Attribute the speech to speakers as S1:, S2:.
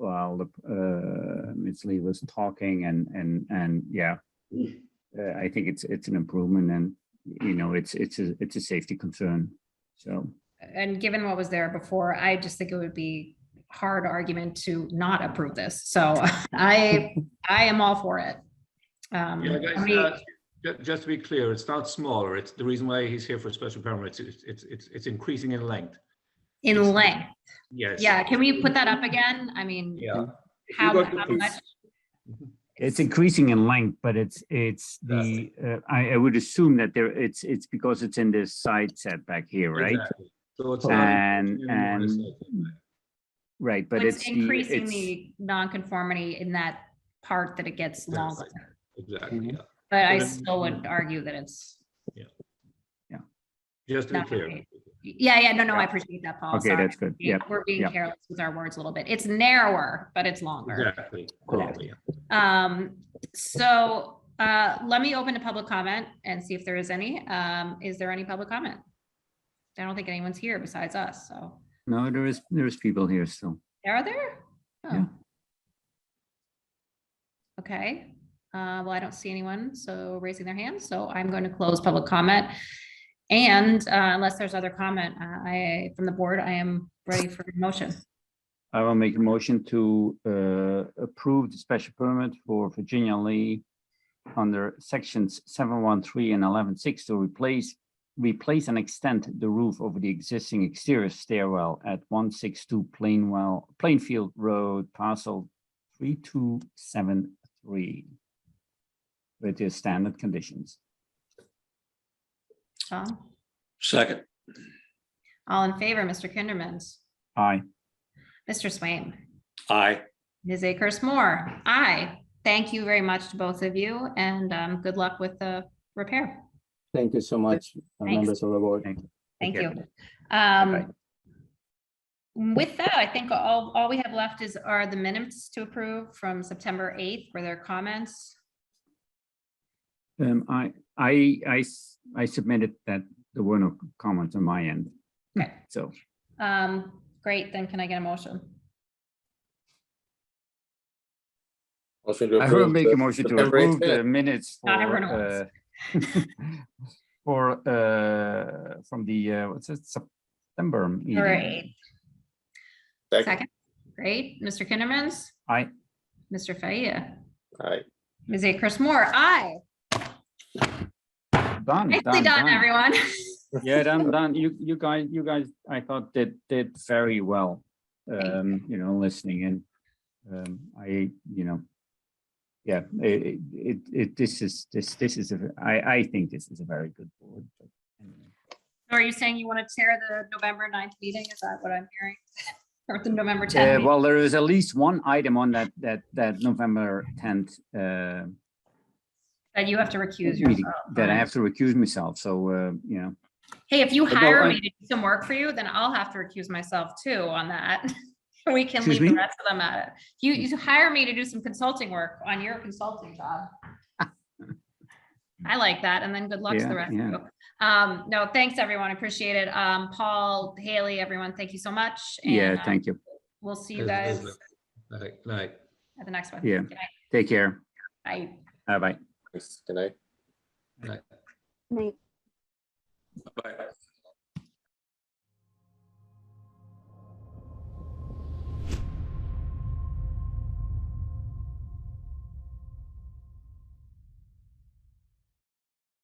S1: while the, uh, Ms. Lee was talking and, and, and yeah. Uh, I think it's, it's an improvement and, you know, it's, it's, a it's a safety concern. So,
S2: And given what was there before, I just think it would be hard argument to not approve this. So I, I am all for it. Um,
S3: Yeah,
S2: how
S3: guys,
S2: many-
S3: uh, ju- just to be clear, it's not smaller. It's the reason why he's here for a special permit. It's, it's, it's, it's increasing in length.
S2: In length,
S3: Yes.
S2: yeah, can we put that up again? I mean,
S3: Yeah. If you
S2: how,
S3: go to
S2: how
S3: the-
S2: much?
S1: It's increasing in length, but it's, it's the, uh, I, I would assume that there, it's, it's because it's in this side setback here, right?
S3: Exactly. So it's. not
S1: And,
S3: increasing anymore, it's
S1: and,
S3: like-
S1: right, but it's,
S2: It's
S1: the-
S2: increasing
S1: it's-
S2: the nonconformity in that part that it gets
S3: That's
S2: longer.
S3: right. Exactly,
S1: Mhm.
S3: yeah.
S2: But I
S3: But it-
S2: still would argue that it's,
S3: Just to be
S2: Not
S3: clear.
S2: great. yeah, yeah, no, no, I
S1: Yeah.
S2: appreciate that, Paul.
S1: Okay,
S2: sorry.
S1: that's good. Yep.
S2: We're being
S1: yep.
S2: careless with our words a little bit. It's narrower, but it's longer.
S3: Exactly.
S1: Correct.
S3: Totally, yeah.
S2: Um, so, uh, let me open to public comment and see if there is any. Um, is there any public comment? I don't think anyone's here besides us, so.
S1: no, there is, there's people here still.
S2: Are there?
S1: Yeah.
S2: Oh. Okay, uh, well, I don't see anyone, so raising their hand, so I'm going to close public comment. And uh, unless there's other comment, uh, I, from the board, I am ready for motion.
S1: I will make a motion to uh, approve the special permit for Virginia Lee under sections seven one three and eleven six to replace, replace and extend the roof over the existing exterior stairwell at one six two Plainwell, Plainfield Road, parcel three two seven three. With the standard conditions.
S2: Tom?
S4: Second,
S2: All in favor, Mr. Kindermans,
S1: Aye.
S2: Mr. Swaim,
S4: aye.
S2: Ms. Akers Moore, aye. Thank you very much to both of you and um, good luck with the repair.
S5: Thank you so much, uh,
S2: Thanks.
S5: members of the board.
S2: Thank
S1: Okay.
S2: you. Um, With that, I think all, all we have left is, are the minutes to approve from September 8th. Were there comments?
S1: Um, I, I, I, s- I submitted that there were no comments on my end,
S2: Okay.
S1: so.
S2: Um, Great, then can I get a motion?
S4: Motion to
S1: I will
S4: approve
S1: make a
S4: the
S1: motion to
S4: September
S1: approve
S4: 8th
S1: the
S4: minute.
S1: minutes
S2: Not
S1: for,
S2: everyone
S1: uh, for, uh, from the, uh, what's it, September
S2: All
S1: meeting.
S2: right,
S4: Second,
S2: second. Great. Mr. Kindermans,
S1: I,
S2: Mr. Faya,
S4: aye.
S2: Ms. Akers Moore, aye.
S1: done,
S2: Nicely
S1: done,
S2: done,
S1: done.
S2: everyone.
S1: Yeah, done, done. You, you guys, you guys, I thought did, did very well. Um, you know, listening and, um, I, you know, yeah, it, it- it, it, this is, this, this is, a- I, I think this is a very good board. but anyway.
S2: So Are you saying you want to chair the November 9th meeting? Is that what I'm hearing? Or the November
S1: Uh,
S2: 10th?
S1: well, there is at least one item on that, that, that November tenth, uh,
S2: That you have to recuse
S1: meeting
S2: yourself?
S1: that I
S2: from?
S1: have to recuse myself, so, uh, you know.
S2: Hey, if you
S1: Although
S2: hire
S1: I-
S2: me to do some work for you, then I'll have to recuse myself too on that. We can
S1: Excuse
S2: leave the
S1: me?
S2: rest of them at it. You, you hire me to do some consulting work on your consulting job. I like that. And then good luck to
S1: Yeah,
S2: the rest of
S1: yeah.
S2: you. Um, no, thanks, everyone. I Appreciate it. Um, Paul, Haley, everyone, thank you so much. and,
S1: Yeah,
S2: um,
S1: thank you.
S2: We'll see you guys
S3: Yes, yes, yes. Like, like.
S2: at the next one.
S1: Yeah.
S2: Good night.
S1: Take care.
S2: Bye.
S1: Bye-bye.
S4: Thanks, Good night.
S3: Right.
S4: Bye.